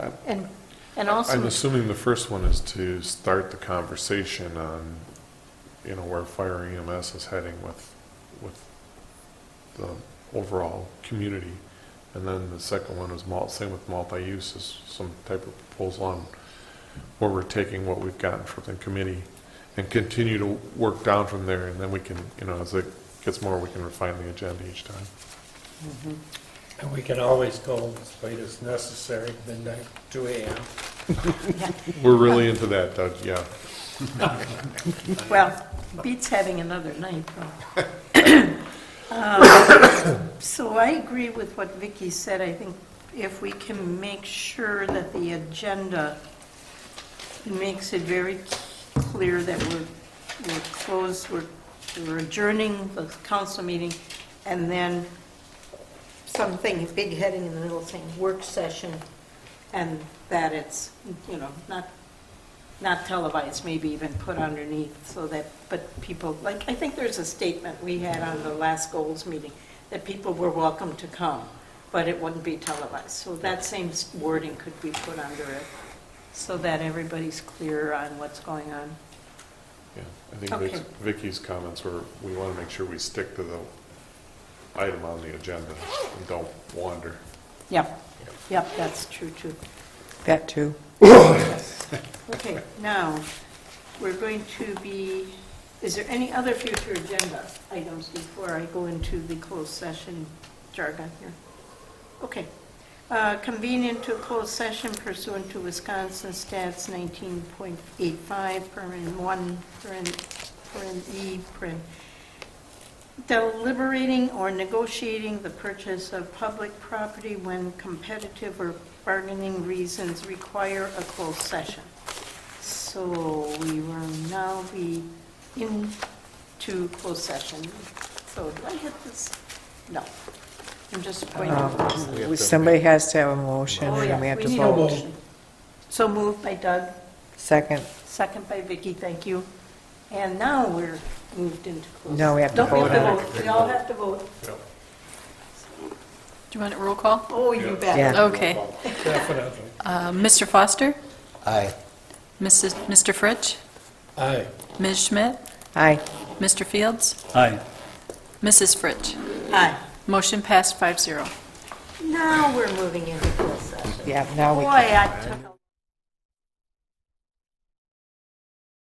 And, and I'm also, assuming the first one is to start the conversation on, you know, where fire EMS is heading with, with the overall community. And then the second one is mul, same with multi-use, is some type of proposal on where we're taking what we've gotten from the committee and continue to work down from there, and then we can, you know, as it gets more, we can refine the agenda each time. And we can always go as late as necessary, midnight, two AM. We're really into that, Doug, yeah. well, beats having another night, though. Um, So I agree with what Vicky said. I think if we can make sure that the agenda makes it very clear that we're, we're closed, we're we're adjourning the council meeting, and then something, big heading in the middle saying work session, and that it's, you know, not, not televised, maybe even put underneath, so that, but people, like, I think there's a statement we had on the last goals meeting, that people were welcome to come, but it wouldn't be televised. So that same wording could be put under it, so that everybody's clear on what's going on. Yeah, I think Okay. Vic's- Vicky's comments were, we want to make sure we stick to the item on the agenda and don't wander. Yep, yep, that's true, too. That too. Okay, now, we're going to be, is there any other future agenda items before I go into the closed session jargon here? Okay. Uh, Convene into closed session pursuant to Wisconsin Stats 19.85, Perman 1, Perman Perman E, Perman deliberating or negotiating the purchase of public property when competitive or bargaining reasons require a closed session. So we will now be into closed session. So do I hit this? No. I'm just pointing. Uh, out. Somebody has to have a motion Oh, yeah, and we have to need a vote. motion. So moved by Doug, Second, second by Vicky, thank you. And now we're moved into closed. No, we have to Don't vote on it. We all have to vote. Do you want a roll call? Oh, you bet. yeah. Okay. Definitely. Uh, Mr. Foster? Aye. Mrs. Mr. Fritsch? Aye. Ms. Schmidt? Aye. Mr. Fields? Aye. Mrs. Fritsch? Aye. Motion passed 5-0. Now we're moving into closed session. Yeah, now we Boy, can. I took a